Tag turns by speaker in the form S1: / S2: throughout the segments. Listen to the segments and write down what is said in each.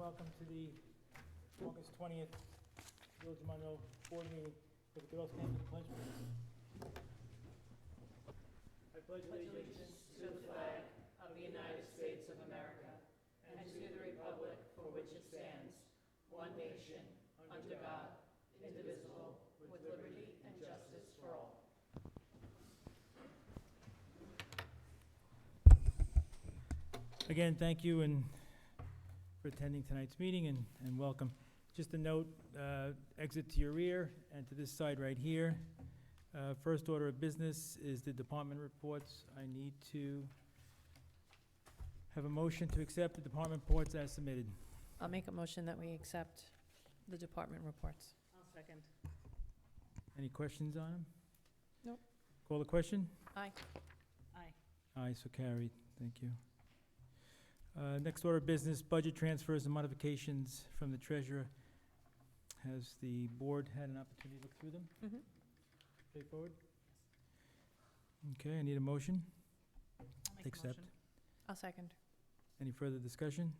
S1: welcome to the August 20th Village of Monroe Board Meeting. If we could all stand for the pledge, please. I pledge allegiance. Again, thank you and for attending tonight's meeting and, and welcome. Just a note, uh, exit to your rear and to this side right here. Uh, First order of business is the department reports. I need to have a motion to accept the department reports as submitted.
S2: I'll make a motion that we accept the department reports.
S3: I'll second.
S1: Any questions on them?
S2: Nope.
S1: Call the question?
S2: Aye.
S3: Aye.
S1: Aye, so carried. Thank you. Uh, Next order of business, budget transfers and modifications from the treasurer. Has the board had an opportunity to look through them?
S2: Mhm.
S1: Straightforward? Okay, I need a motion.
S3: I'll make a
S1: Accept.
S3: motion.
S2: I'll second.
S1: Any further discussion?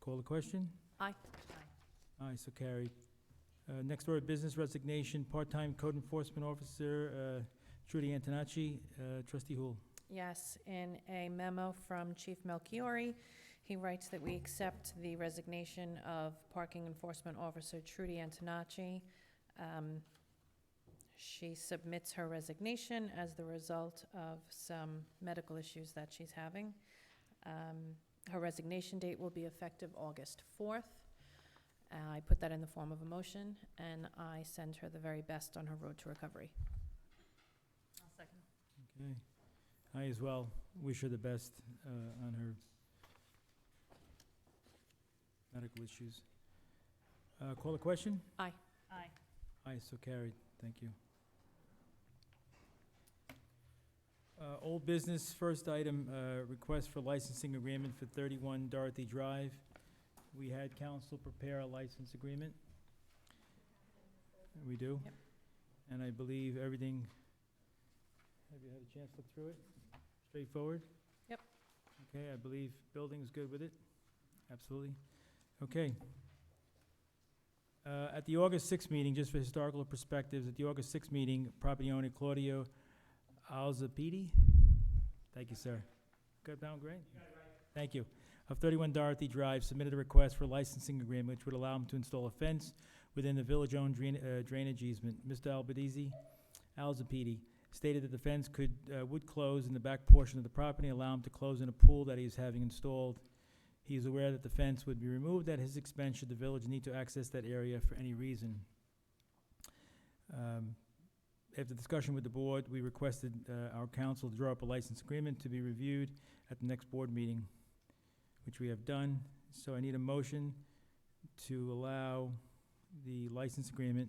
S1: Call the question?
S2: Aye.
S1: Aye, so carried. Uh, Next order of business, resignation, part-time code enforcement officer uh, Trudy Antonacci. Uh, Trustee Hool.
S2: Yes, in a memo from Chief Melchiori, he writes that we accept the resignation of Parking Enforcement Officer Trudy Antonacci. Um, She submits her resignation as the result of some medical issues that she's having. Um, Her resignation date will be effective August 4th. Uh, I put that in the form of a motion, and I send her the very best on her road to recovery.
S3: I'll second.
S1: Okay. I as well wish her the best uh, on her medical issues. Uh, Call the question?
S3: Aye.
S1: Aye, so carried. Thank you. Uh, Old business, first item, uh, request for licensing agreement for 31 Dorothy Drive. We had council prepare a license agreement. We do?
S2: Yep.
S1: And I believe everything, have you had a chance to look through it? Straightforward?
S2: Yep.
S1: Okay, I believe building's good with it? Absolutely. Okay. Uh, At the August 6th meeting, just for historical perspectives, at the August 6th meeting, property owner Claudio Alzapidi, thank you, sir. Got that one great? Thank you. Of 31 Dorothy Drive submitted a request for licensing agreement which would allow him to install a fence within the village-owned drain- uh, drainage easement. Mr. Albedizi, Alzapidi, stated that the fence could, uh, would close in the back portion of the property, allow him to close in a pool that he is having installed. He is aware that the fence would be removed at his expense should the village need to access that area for any reason. Um, After discussion with the board, we requested uh, our council to draw up a license agreement to be reviewed at the next board meeting, which we have done. So I need a motion to allow the license agreement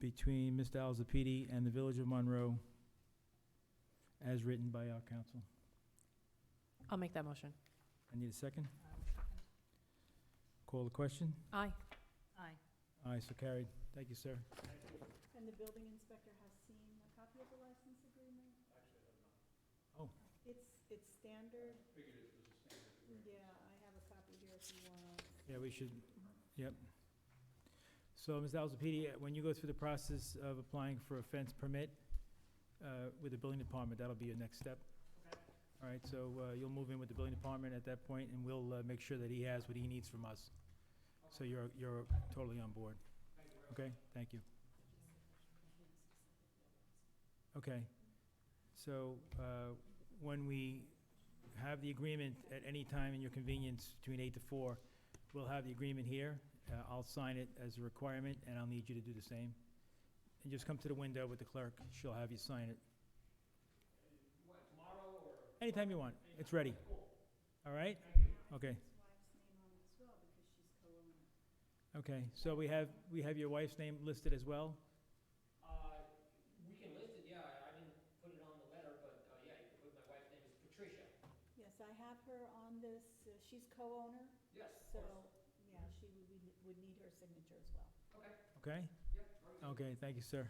S1: between Mr. Alzapidi and the Village of Monroe as written by our council.
S2: I'll make that motion.
S1: I need a second. Call the question.
S2: Aye.
S3: Aye.
S1: Aye, so carried. Thank you, sir.
S3: And the building inspector has seen a copy of the license agreement?
S1: Oh.
S3: It's, it's standard. Yeah, I have a copy here if you want.
S1: Yeah, we should, yep. So, Ms. Alzepidi, uh, when you go through the process of applying for a fence permit uh, with the building department, that'll be your next step. All right, so uh, you'll move in with the building department at that point, and we'll uh, make sure that he has what he needs from us. So you're, you're totally on board. Okay, thank you. Okay, so uh, when we have the agreement at any time in your convenience between eight to four, We'll have the agreement here. Uh, I'll sign it as a requirement, and I'll need you to do the same. And just come to the window with the clerk. She'll have you sign it. What, tomorrow or? Anytime you want. It's ready. All right? Okay. Okay, so we have, we have your wife's name listed as well?
S3: Yes, I have her on this, uh, she's co-owner. Yes, So, yeah, she would, be- would need her signature as well.
S1: Okay? Okay, thank you, sir.